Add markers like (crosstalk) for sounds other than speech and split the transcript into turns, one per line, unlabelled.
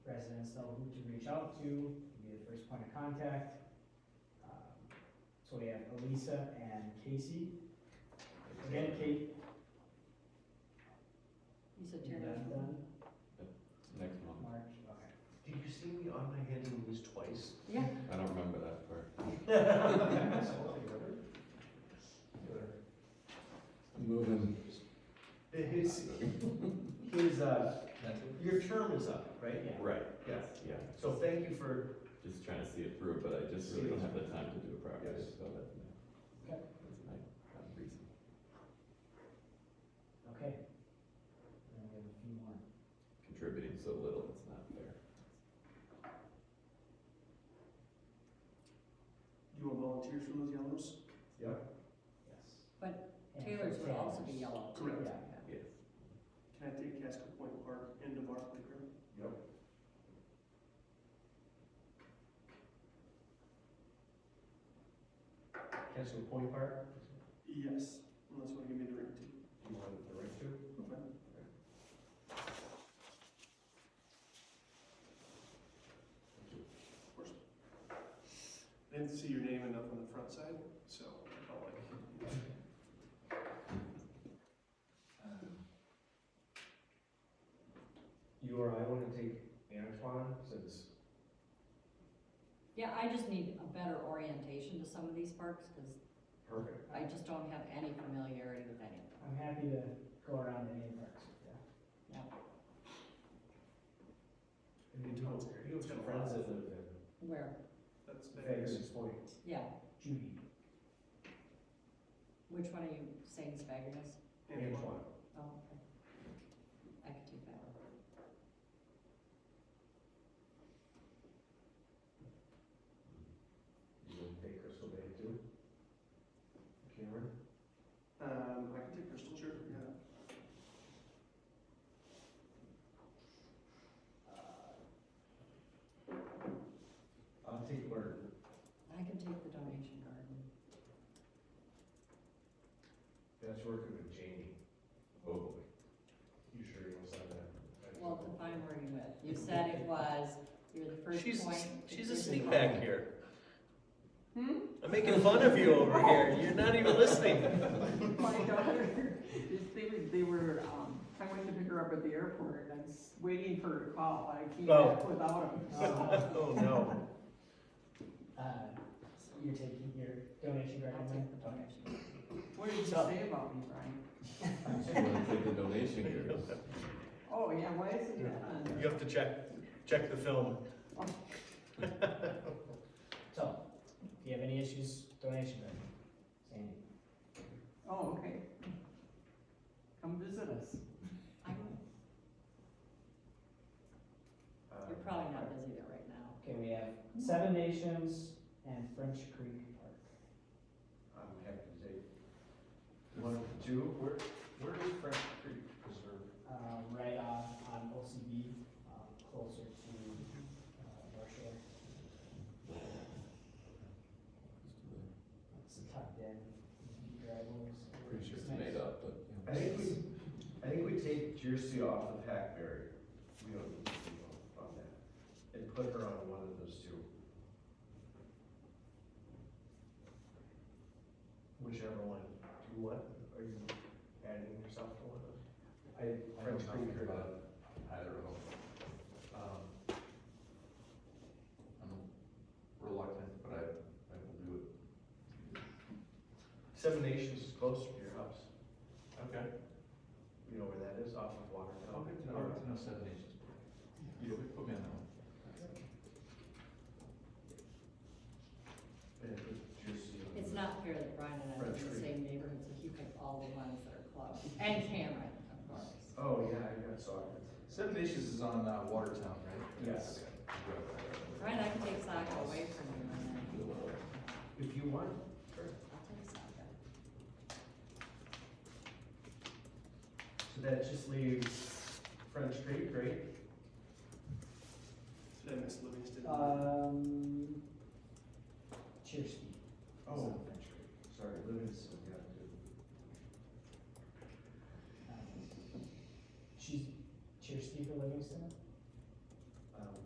know who to reach out to, to be the first point of contact. Um, So we have Elisa and Casey. Again, Kate,
You said
you're
Terry.
not done,
Next month.
March, okay.
Did you see me on my hands and knees twice?
Yeah,
I don't remember that part. (laughs)
(laughs)
Moving.
His, his, uh, your term is up, right?
Yeah.
Right,
Yeah.
yeah.
So thank you for,
Just trying to see it through, but I just really don't have the time to do it properly,
Yes.
so that's my,
Okay.
that's my um, reason.
Okay. And we have a few more.
Contributing so little, it's not fair.
You want volunteers from those yellows?
Yes.
But
And
Taylor's
for
would also be
Taylor's.
yellow. too.
Correct.
Yeah.
Yes.
Can I take Casco Point Park into Barclay Group?
Castle Point Park,
Yes, unless you want to give me the ring too.
you want the right to?
Okay. Of course. I didn't see your name enough on the front side, so I felt like.
You or I want to take Antoine, since,
Yeah, I just need a better orientation to some of these parks, because
perfect.
I just don't have any familiarity with any.
I'm happy to go around any of the parks with you.
And you don't, you have some friends that live in
Where,
That's
Vegas
Vegas.
Point.
yeah,
Judy,
which one are you saying is Faggerness?
Antoine.
Oh, okay. I could take that one.
You want to take Crystal Bay too? Cameron?
Um, I can take Crystal, sure, yeah.
Uh, I'll take Martin.
I can take the donation garden.
That's working with Jamie. Oh boy. You sure you want to sign that?
Well, define where you live. You said it was, you're the first
She's,
point.
she's a
decision
sneak
maker.
back
(laughs)
here.
Hmm?
I'm making fun of you over here, you're not even listening.
My daughter, (laughs) they were, they were, um, I went to pick her up at the airport and I was waiting for her to call, I came back without
(laughs)
him.
uh,
Oh, no.
uh, you're taking your donation grant?
I'll take the donation. garden.
What did you say about me, Brian?
(laughs)
Just wanna take the donation girls.
Oh, yeah, why isn't that on there?
You have to check, check the film.
So, if you have any issues, donation grant, Sandy.
Oh, okay. Come visit us.
I'm-
Uh,
You're probably not busy there right now.
Okay, we have Seven Nations and French Creek Park.
I'm happy to take. One, two, where, where is Fresh Creek Preserve?
Um, right on, on OCB, um, closer to, uh, North Shore. It's tucked in, deep driveways.
Pretty sure it's made up, but. yeah.
I think we, I think we take Jersey off the pack barrier. We don't need to go on that. And put her on one of those two. Whichever one. Do what? Are you adding yourself to one of them? I, French
know
Creek
nothing
or
about
not.
I don't know.
Um,
I'm reluctant, but I, I will do it.
Seven Nations is closer to your house.
Okay.
You know where that is, off of Watertown.
no Seven Nations. You put me on that one.
Yeah, but Jersey. on
It's
the-
not fair that Brian and I live in the
French
same neighborhood, so he picked all the ones that are close, and Cameron, of course.
Oh, yeah, I got sockets.
Seven Nations is on uh, Watertown, right?
Yes.
Brian, I can take soccer away from you and then
If you want.
I'll take soccer.
So that just leaves French Creek, right?
Uh,
Did I miss Livingston?
Um, Cheersky.
Oh.